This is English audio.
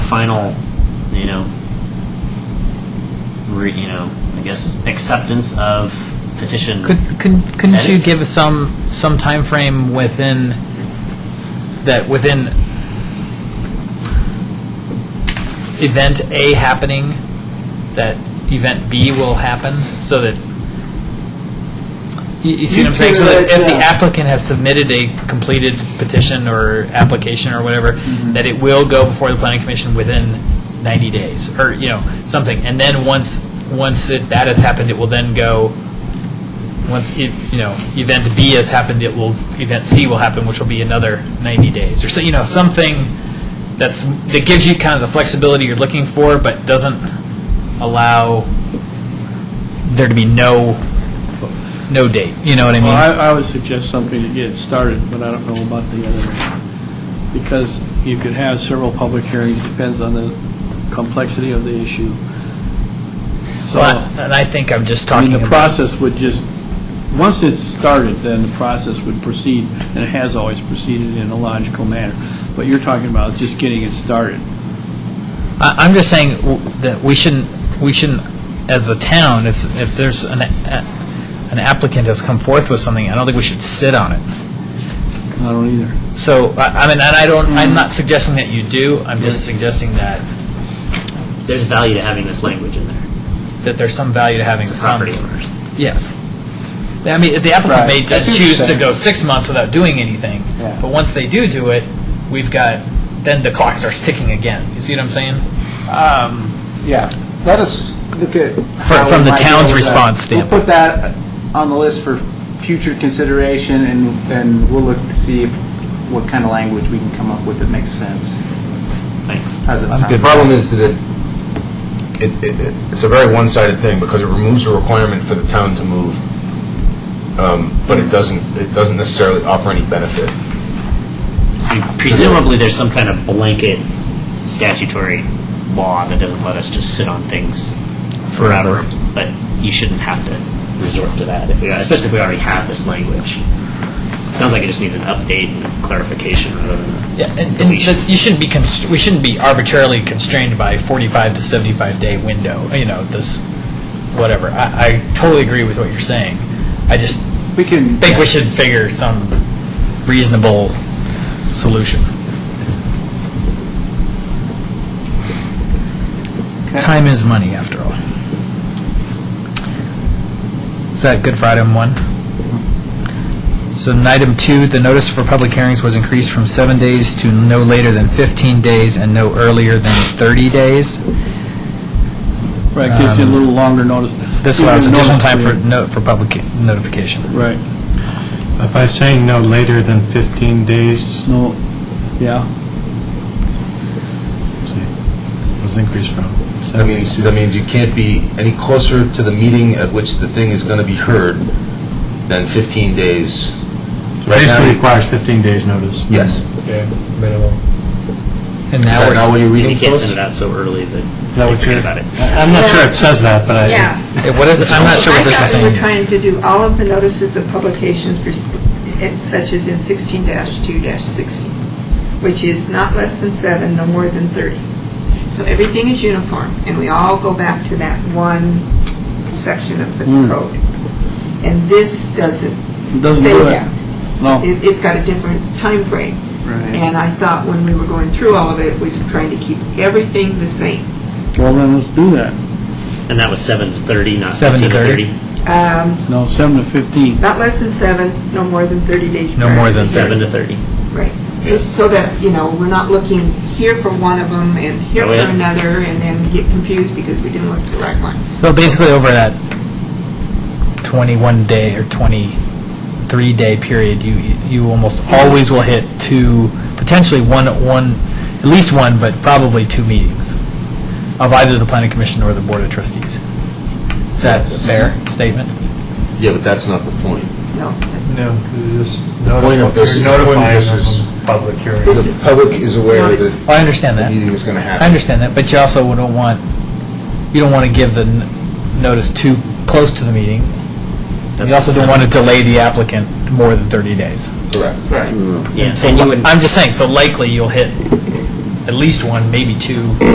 final, you know, re, you know, I guess acceptance of petition. Could, couldn't couldn't you Edits? give us some, some timeframe within, that within event A happening, that event B will happen, so that, you, you see what I'm saying? So that if the applicant has submitted a completed petition or application or whatever, that it will go before the planning commission within 90 days, or, you know, something. And then once, once it- that has happened, it will then go once e- you know event B has happened, it will event C will happen, which will be another 90 days or so. You know something that's that gives you kind of the flexibility you're looking for, but doesn't allow there to be no no date. You know what I mean? Well, I, I would suggest something to get it started, but I don't know about the other, because you could have several public hearings, depends on the complexity of the issue. So, Well, and I think I'm just I talking mean, the about- process would just, once it's started, then the process would proceed, and it has always proceeded in a logical manner. But you're talking about just getting it started. I- I'm just saying w- that we shouldn't, we shouldn't, as the town, if, if there's an, a- an applicant has come forth with something, I don't think we should sit on it. I don't either. So, I I mean, and I don't, I'm not suggesting that you do, I'm just suggesting that, There's value to having this language in there. that there's some value to having The some. property owners. Yes. I mean, if the applicant may Right. I see just what you're choose to saying. go six months without doing anything, Yeah. but once they do do it, we've got, then the clock starts ticking again. You see what I'm saying? Yeah, let us look at. Fr- how from we the might be town's able to- response standpoint. We'll put that on the list for future consideration, and, and we'll look to see if- what kind of language we can come up with that makes sense. Thanks. How's it sound? The problem is that it- it, it, it- it's a very one-sided thing, because it removes a requirement for the town to move, um, but it doesn't, it doesn't necessarily offer any benefit. And Presumably, there's some kind of blanket statutory law that doesn't let us just sit on things forever. But you shouldn't have to resort to that, if we, especially if we already have this language. It sounds like it just needs an update and clarification rather than Yeah, and, and deletion. that you shouldn't be const- we shouldn't be arbitrarily constrained by a 45 to 75 day window. You know, this whatever. I, I totally agree with what you're saying. I just We can. think we should figure some reasonable solution. Time is money, after all. Is that good for item one? So in item two, the notice for public hearings was increased from seven days to no later than 15 days and no earlier than 30 days. Right, gives you a little longer notice. Um, This allows Even additional notice time for, period. no- for public notification. Right, But By saying no later than 15 days, let's no, yeah. see, was increased from That 70. means, that means you can't be any closer to the meeting at which the thing is going to be heard than 15 days. Right now, Basically you- requires 15 days notice. Yes. Okay, minimum. And Is now that we're, not what you're And reading you to can't us? send it out so early that Is that you what forget you're- about it. I- I'm not sure it says that, but I... Yeah. Eh, what is, it? I'm not sure what this is I thought we were saying. trying to do all of the notices of publications pers- eh, such as in 16-2-16, which is not less than seven, no more than 30. So everything is uniform, and we all go back to that one section of the code. And this doesn't Doesn't say do Hmm. it. that. No. It- It's got a different time frame. Right. And I thought when we were going through all of it, we was trying to keep everything the same. Well, then let's do that. And that was seven to thirty, not 7 to fifteen to 30? thirty. Um, No, 7 to 15. Not less than seven, no more than 30 days No prior. more than Seven to thirty. Right, just so that, you know, we're not looking here for one of them and here Oh, for yeah. another, and then get confused because we didn't look at the right one. So basically, over that 21 day or 23 day period, you you almost always will hit two, potentially one one, at least one, but probably two meetings of either the planning commission or the board of trustees. Is that a fair statement? Yeah, but that's not the point. No, No, just Point of this- the point notify- of notifying this is- them of public hearing. This The is- public is aware Notice. that I understand the that. meeting is going to I happen. understand that, but you also don't want you don't want to give the n- notice too close to the meeting. You also don't want to delay the applicant more than 30 days. Correct. Yeah, So and you li- would, I'm just saying, so likely you'll hit at least one, maybe two